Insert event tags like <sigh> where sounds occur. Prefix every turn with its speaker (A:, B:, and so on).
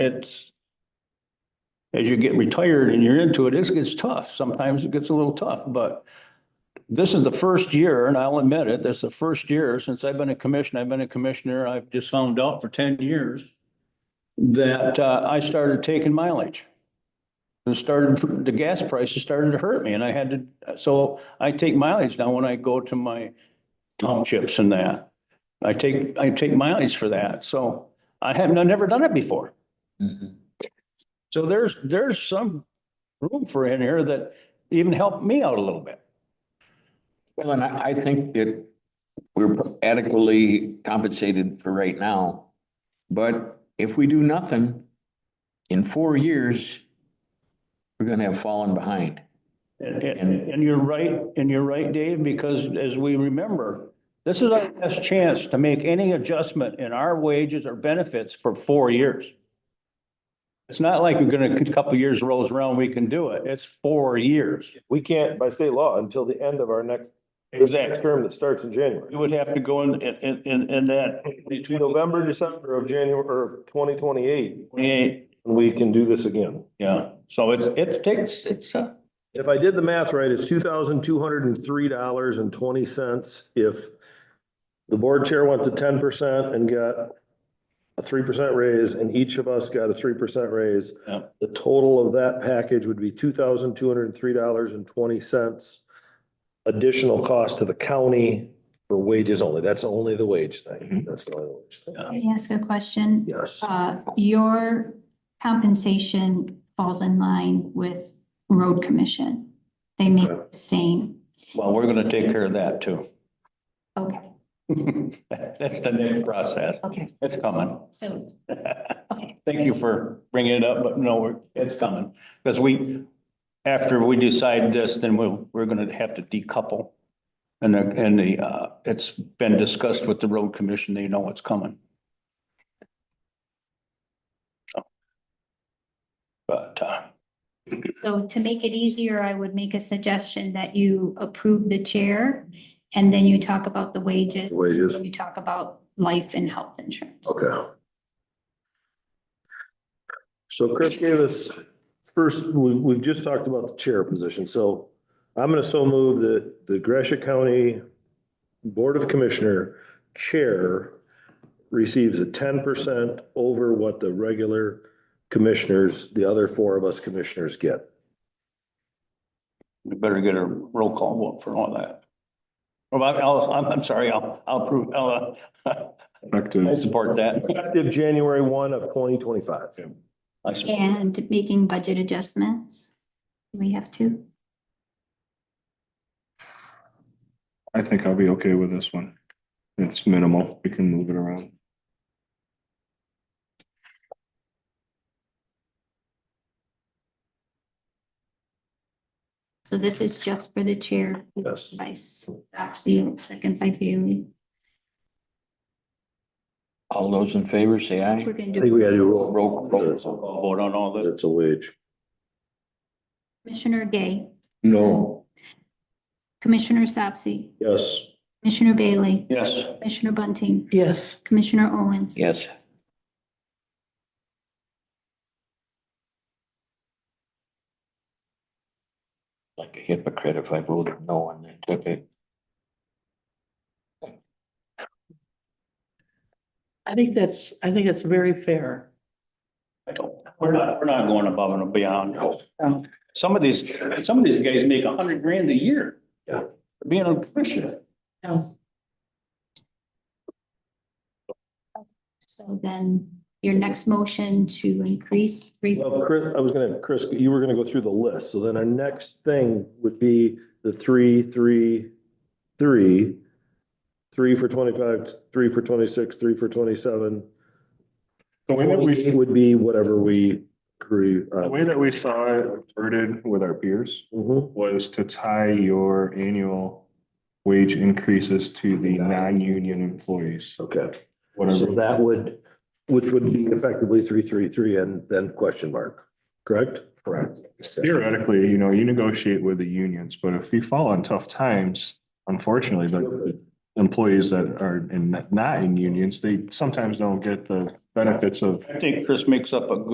A: it's as you get retired and you're into it, it's, it's tough. Sometimes it gets a little tough, but this is the first year, and I'll admit it, this is the first year since I've been a commissioner, I've been a commissioner, I've just found out for ten years that, uh, I started taking mileage. It started, the gas prices started to hurt me and I had to, so I take mileage now when I go to my townships and that. I take, I take mileage for that, so I haven't, I've never done it before.
B: Mm-hmm.
A: So there's, there's some room for in here that even helped me out a little bit.
B: Well, and I, I think that we're adequately compensated for right now. But if we do nothing, in four years, we're gonna have fallen behind.
A: And, and, and you're right, and you're right, Dave, because as we remember, this is our best chance to make any adjustment in our wages or benefits for four years. It's not like we're gonna, a couple of years rolls around, we can do it. It's four years.
C: We can't by state law until the end of our next, this next
A: Exactly.
C: term that starts in January.
A: We would have to go in, in, in, in that
C: Between November, December of January, or twenty twenty-eight,
A: twenty-eight,
C: we can do this again.
A: yeah. So it's, it takes, it's, uh,
C: If I did the math right, it's two thousand two hundred and three dollars and twenty cents if the board chair went to ten percent and got a three percent raise and each of us got a three percent raise.
A: Yeah.
C: The total of that package would be two thousand two hundred and three dollars and twenty cents additional cost to the county for wages only. That's only the wage thing.
B: Mhm.
C: That's the only wage thing.
D: Can I ask a question?
C: Yes.
D: Uh, your compensation falls in line with road commission. They make the same,
A: well, we're gonna take care of that too.
D: okay,
A: <laughs> That's the next process.
D: okay,
A: It's coming. <laughs>
D: so, okay.
A: Thank you for bringing it up, but no, we're- it's coming. Because we, after we decide this, then we'll, we're going to have to decouple. And, the- and the, uh, it's been discussed with the road commission. They know it's coming. So. But, uh,
D: So to make it easier, I would make a suggestion that you approve the chair and then you talk about the wages.
C: Wages.
D: You talk about life and health insurance.
C: Okay. So Chris gave us, first, we've, we've just talked about the chair position, so I'm gonna so move that the Gresham County Board of Commissioner Chair receives a ten percent over what the regular commissioners, the other four of us commissioners get.
A: we better get a roll call vote for all that. Well, I- I'll, I'm, I'm sorry, I'll, I'll approve, I'll, uh, I support that.
C: Effective January one of twenty twenty-five.
A: I support-
D: And making budget adjustments. We have to.
E: I think I'll be okay with this one. It's minimal. We can move it around.
D: So this is just for the chair.
C: Yes.
D: By Stotsy, second by Bailey.
B: All those in favor, say aye.
D: We're gonna
C: I think
D: do
C: we gotta do roll.
B: Roll, roll. call.
A: I'll Vote on all this.
C: It's a wage.
D: Commissioner Gay,
B: No,
D: Commissioner Sapsy,
C: Yes.
D: Commissioner Bailey,
A: Yes.
D: Commissioner Bunting,
F: Yes.
D: Commissioner Owens.
B: yes. Like a hypocrite if I voted no and they took it.
F: I think that's, I think that's very fair.
A: I don't, we're not, we're not going above and beyond. Some of these, some of these guys make a hundred grand a year.
C: Yeah.
A: for Being a commissioner.
F: No.
D: So then your next motion to increase three,
C: Well, Chris, I was gonna, Chris, you were gonna go through the list, so then our next thing would be the three, three, three. Three for twenty-five, three for twenty-six, three for twenty-seven.
E: The way that
C: It
E: we,
C: would be whatever we agree
E: the
C: on.
E: way that we saw it worded with our peers
C: Mhm.
E: was to tie your annual wage increases to the non-union employees,
C: Okay, so
E: whatever.
C: that would, which would be effectively three, three, three, and then question mark, correct?
E: Correct. Theoretically, you know, you negotiate with the unions, but if you fall on tough times, unfortunately, the employees that are in, not in unions, they sometimes don't get the benefits of
A: I think Chris makes up a good